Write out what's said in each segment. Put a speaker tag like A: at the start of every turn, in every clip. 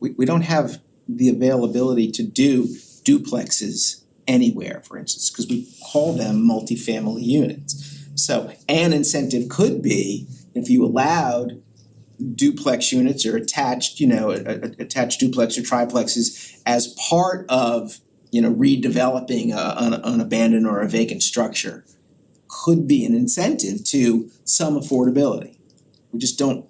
A: we we don't have the availability to do duplexes anywhere, for instance, cause we call them multifamily units. So an incentive could be if you allowed duplex units or attached, you know, a- a- attached duplex or triplexes as part of, you know, redeveloping a an an abandoned or a vacant structure could be an incentive to some affordability. We just don't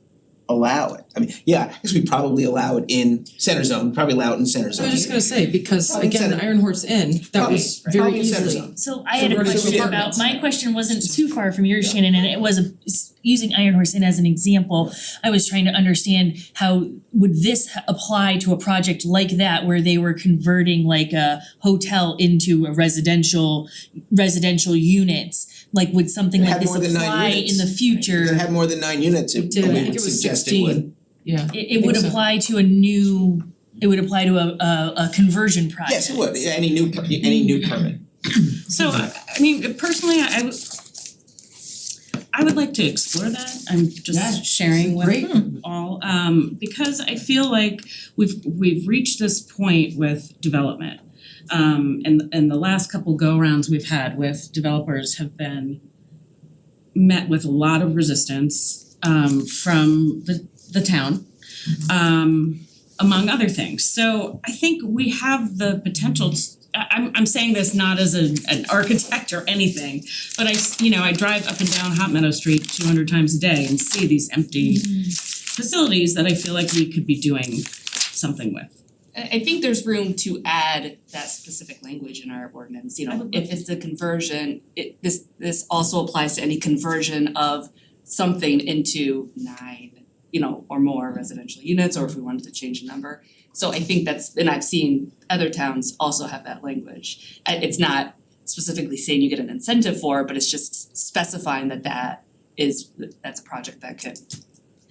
A: allow it. I mean, yeah, I guess we probably allow it in center zone, probably allow it in center
B: I
A: zone.
B: was just gonna say, because
A: Probably
B: again,
A: center.
B: Iron Horse Inn, that was
A: Probably-
B: very
A: probably in center
B: easily.
A: zone.
C: So I had a
B: Suburban
C: question about,
B: apartments.
C: my question wasn't too far from yours, Shannon, and it was a- s- using Iron Horse Inn as an example. I was trying to understand how would this h- apply to a project like that where they were converting like a hotel into a residential residential units? Like would something
A: It
C: like
A: had
C: this
A: more than nine
C: apply in
A: units.
C: the
A: If it
C: future?
A: had more than nine units, it
B: Did, I
A: we
B: think
A: would
B: it was
A: suggest it would.
B: sixteen, yeah.
C: It it would
B: think so.
C: apply to a new, it would apply to a a a conversion project.
A: Yes, it would, any new per- any new permit.
D: So I I mean, personally, I I would I would like to explore that, I'm
B: Yeah,
D: just sharing
B: great.
A: Hmm.
D: with all, um because I feel like we've we've reached this point with development. Um and and the last couple go-rounds we've had with developers have been met with a lot of resistance um from the the town. Um among other things. So I think we have the potential to, I I'm I'm saying this not as an an architect or anything, but I, s- you know, I drive up and down Hot Meadow Street two hundred times a day and see these empty facilities that I feel like we could be doing something with.
E: I I think there's room to add that specific language in our ordinance, you
D: I
E: know,
D: would love
E: if it's a conversion, it this this also applies to any conversion of something into nine, you know, or more residential units, or if we wanted to change the number. So I think that's, and I've seen other towns also have that language. I it's not specifically saying you get an incentive for, it, but it's just specifying that that is, that's a project that could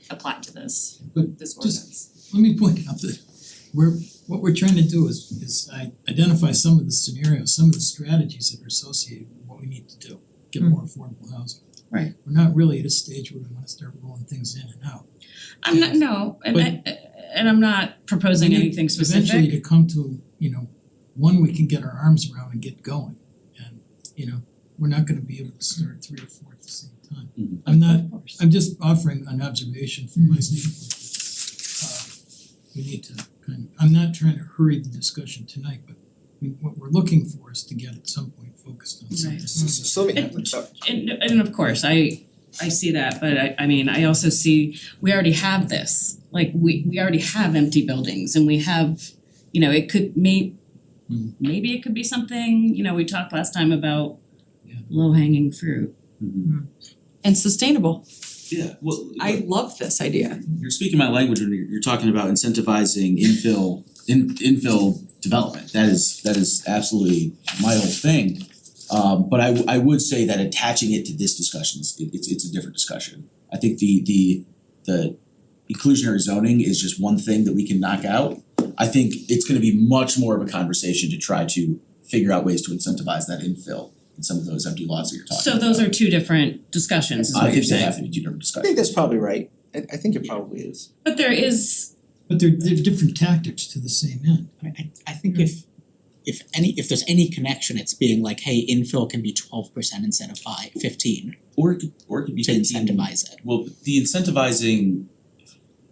E: apply to this,
F: But
E: this
F: just-
E: ordinance.
F: Let me point out that we're, what we're trying to do is is I identify some of the scenarios, some of the strategies that are associated with what we need to do, get more affordable housing.
D: Right.
F: We're not really at a stage where we wanna start rolling things in and out.
D: I'm not, no, and I and I'm not proposing
F: We need
D: anything specific.
F: Eventually to come to, you know, one we can get our arms around and get going. And, you know, we're not gonna be able to start three or four at the same time. I'm not, I'm just offering an observation from my
D: Mm-hmm.
F: standpoint. Uh, We need to kind of, I'm not trying to hurry the discussion tonight, but we, what we're looking for is to get at some point focused on something.
D: Right.
A: So so so let me, so-
D: And and of course, I I see that, but I I mean, I also see, we already have this, like we we already have empty buildings and we have, you know, it could may
F: Hmm.
D: maybe it could be something, you know, we talked last time about
F: Yeah.
D: low hanging fruit.
G: and sustainable.
H: Yeah, well,
G: I
H: but
G: love this idea.
H: you're speaking my language when you're you're talking about incentivizing infill in infill development. That is that is absolutely my whole thing. Um but I w- I would say that attaching it to this discussion is it- it's it's a different discussion. I think the the the inclusionary zoning is just one thing that we can knock out. I think it's gonna be much more of a conversation to try to figure out ways to incentivize that infill in some of those empty lots that you're talking
D: So
H: about.
D: those are two different discussions is
H: I
D: what you're
H: think they
D: saying.
H: have to be two different
A: I
H: discussions.
A: think that's probably right, I I think it probably is.
D: But there is,
F: But they're they're different tactics to the same end.
I: I mean, I I think if if any, if there's any connection, it's being like, hey, infill can be twelve percent instead of five, fifteen,
H: Or it could or it could be
I: to
H: fifteen
I: incentivize it.
H: Well, the incentivizing,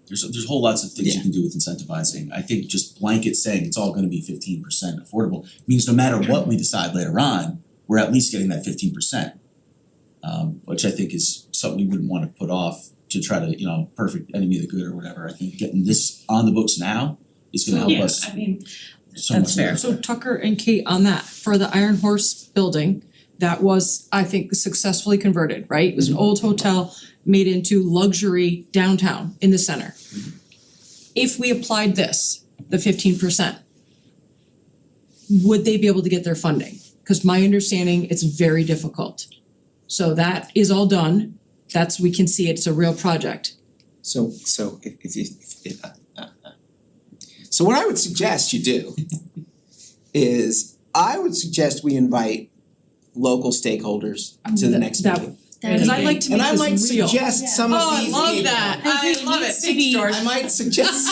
H: there's there's whole lots of things
I: Yeah.
H: you can do with incentivizing. I think just blanket saying it's all gonna be fifteen percent affordable means no matter what we decide later on, we're at least getting that fifteen percent. Um which I think is something we wouldn't wanna put off to try to, you know, perfect enemy of the good or whatever. I think getting this on the books now is gonna help
D: yeah,
H: us
D: I mean,
H: so much.
D: that's fair.
H: later.
G: So Tucker and Kate on that, for the Iron Horse building, that was, I think, successfully converted, right? It was
A: Mm-hmm.
G: an old hotel made into luxury downtown in the center.
A: Mm-hmm.
G: If we applied this, the fifteen percent, would they be able to get their funding? Cause my understanding, it's very difficult. So that is all done, that's, we can see it's a real project.
A: So so if if if if- uh, uh, uh. So what I would suggest you do is I would suggest we invite local stakeholders to the
G: That-
A: next
G: that-
A: meeting.
C: That
G: Cause I'd like to make
A: And
G: this real.
A: I might suggest
C: Yeah.
A: some of
G: Oh, I
A: these
G: love
A: people-
G: that,
C: I
G: I
C: agree, it
G: love it,
C: needs to
G: thanks
C: be-
G: George.
A: I might suggest